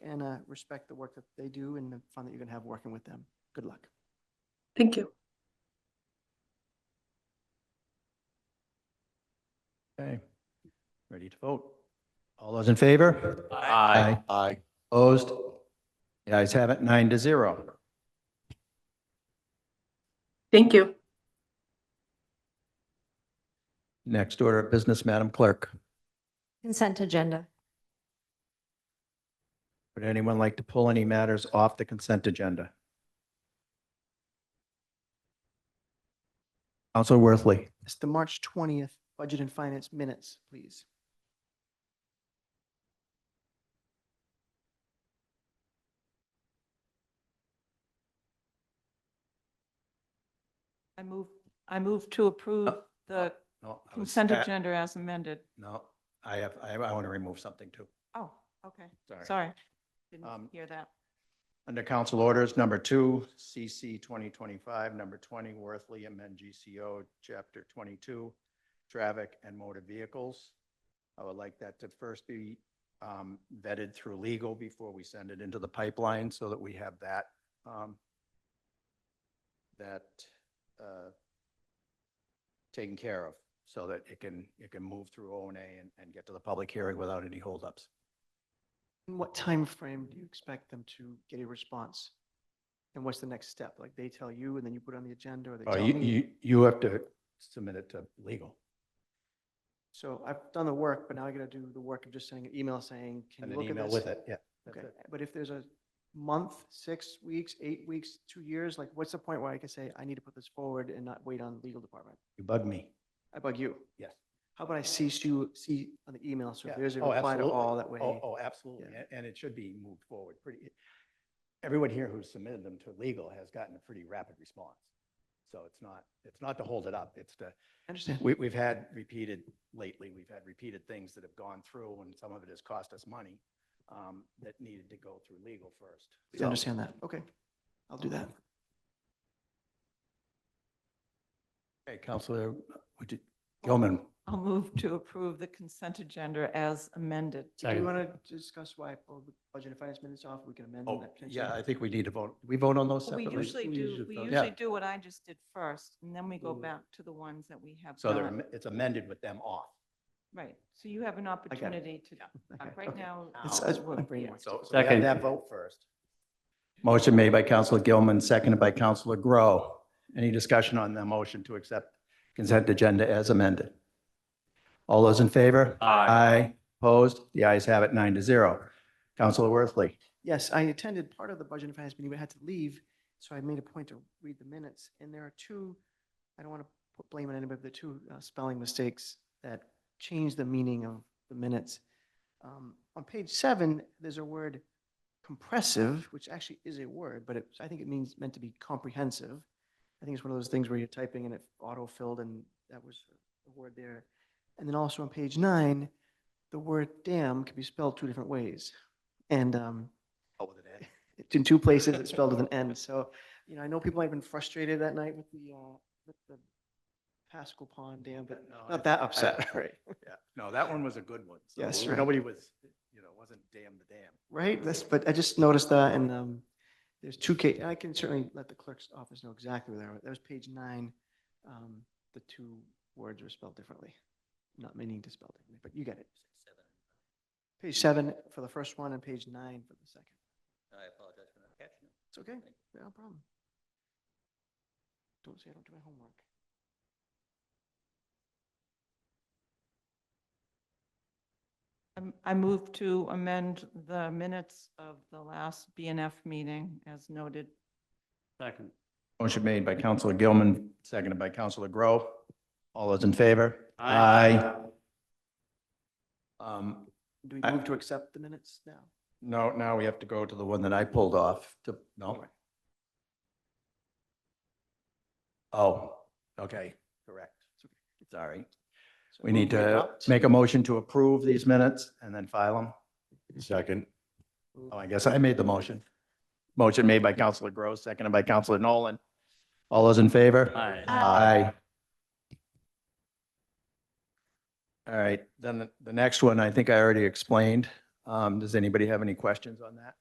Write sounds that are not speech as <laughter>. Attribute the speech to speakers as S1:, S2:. S1: that, uh, respect the work that they do and the fun that you're going to have working with them. Good luck.
S2: Thank you.
S3: Okay, ready to vote. All those in favor? Aye.
S4: Aye.
S3: Opposed? The ayes have it, nine to zero.
S2: Thank you.
S3: Next order of business, Madam Clerk.
S5: Consent agenda.
S3: Would anyone like to pull any matters off the consent agenda? Counselor Worthley,
S1: It's the March 20th Budget and Finance Minutes, please.
S6: I move, I move to approve
S3: Uh,
S6: the
S3: no, I was-
S6: consent
S3: uh,
S6: agenda as amended.
S3: No, I have, I, I want to remove something too.
S6: Oh, okay,
S3: Sorry.
S6: sorry.
S3: Um,
S6: Didn't hear that.
S3: Under council orders, number two, CC 2025, number 20, Worthley amend GCO, chapter 22, traffic and motor vehicles. I would like that to first be um, vetted through legal before we send it into the pipeline so that we have that, um, that uh, taken care of so that it can, it can move through O and A and- and get to the public hearing without any holdups.
S1: In what time frame do you expect them to get a response? And what's the next step? Like they tell you and then you put it on the agenda or they
S3: Oh,
S1: tell
S3: you,
S1: me?
S3: you, you have to submit it to legal.
S1: So I've done the work, but now I got to do the work of just sending an email saying, can
S3: And
S1: you
S3: an
S1: look at
S3: email
S1: this?
S3: with it, yeah. that's
S1: Okay,
S3: it.
S1: but if there's a month, six weeks, eight weeks, two years, like what's the point where I can say, I need to put this forward and not wait on the legal department?
S3: You bug me.
S1: I bug you.
S3: Yes.
S1: How about I CC you, see on the email, so
S3: Yeah.
S1: if there's a
S3: Oh,
S1: reply to
S3: absolutely.
S1: all that way.
S3: Oh, oh, absolutely.
S1: Yeah.
S3: A- And it should be moved forward pretty. Everyone here who submitted them to legal has gotten a pretty rapid response. So it's not, it's not to hold it up. It's to,
S1: I Understand.
S3: we, we've had repeated lately, we've had repeated things that have gone through and some of it has cost us money um, that needed to go through legal first.
S1: I
S3: So-
S1: understand that. Okay. I'll do that.
S3: Okay, Counselor, would you, Gilman,
S6: I'll move to approve the consent agenda as amended.
S1: Do you want to discuss why I pulled the budget and finance minutes off? We can amend
S3: oh,
S1: that. potentially?
S3: yeah, I think we need to vote. We vote on those
S6: We
S3: separately?
S6: usually do, we
S3: Yeah.
S6: usually do what I just did first, and then we go
S1: Mm.
S6: back to the ones that we have
S4: Uh,
S3: So they're,
S6: done.
S3: am- it's amended with them off.
S6: Right, so you have an opportunity to, uh,
S1: Okay,
S6: right
S1: okay.
S6: now.
S1: It's-
S6: uh,
S1: it's-
S6: we're-
S1: my brain
S6: yeah.
S1: wants to-
S3: So so we have that vote first. Motion made by Counselor Gilman, seconded by Counselor Grow. Any discussion on the motion to accept consent agenda as amended? All those in favor? Aye. Opposed? The ayes have it, nine to zero. Counselor Worthley,
S1: Yes, I attended part of the budget and finance meeting, but had to leave, so I made a point to read the minutes. And there are two, I don't want to put blame on anybody, but there are two uh, spelling mistakes that change the meaning of the minutes. Um, On page seven, there's a word compressive, which actually is a word, but it, I think it means, meant to be comprehensive. I think it's one of those things where you're typing and it auto-filled, and that was the word there. And then also on page nine, the word damn can be spelled two different ways. And um,
S3: Oh,
S1: it's in two places, it's spelled with an N. So, you know, I know people have been frustrated that night with the, uh, with the Pascal Pond Dam, but
S3: No, I-
S1: not that upset, right?
S3: <laughs> yeah, no, that one was a good one. So
S1: Yes, right.
S3: Nobody was, you know, wasn't damn the damn.
S1: <laughs> Right, that's, but I just noticed that and, um, there's two ca, I can certainly let the clerk's office know exactly where they are. That was page nine. Um, the two words were spelled differently, not meaning to spell differently, but you get it. Page seven for the first one and page nine for the second.
S4: I apologize for not catching it.
S1: It's okay, no problem. Don't say I don't do my homework.
S6: I'm- I move to amend the minutes of the last BNF meeting as noted.
S4: Second.
S3: Motion made by Counselor Gilman, seconded by Counselor Grow. All those in favor?
S4: Aye.
S3: Aye. Um,
S1: Do we
S3: I-
S1: move to accept the minutes now?
S3: No, now we have to go to the one that I pulled off to, no. Oh, okay, correct. Sorry.
S1: So
S3: We
S1: move
S3: need to
S1: adopt.
S3: make a motion to approve these minutes and then file them.
S4: Second.
S3: Oh, I guess I made the motion. Motion made by Counselor Gross, seconded by Counselor Nolan. All those in favor?
S4: Aye.
S3: Aye. All right, then the- the next one, I think I already explained. Um, Does anybody have any questions on that?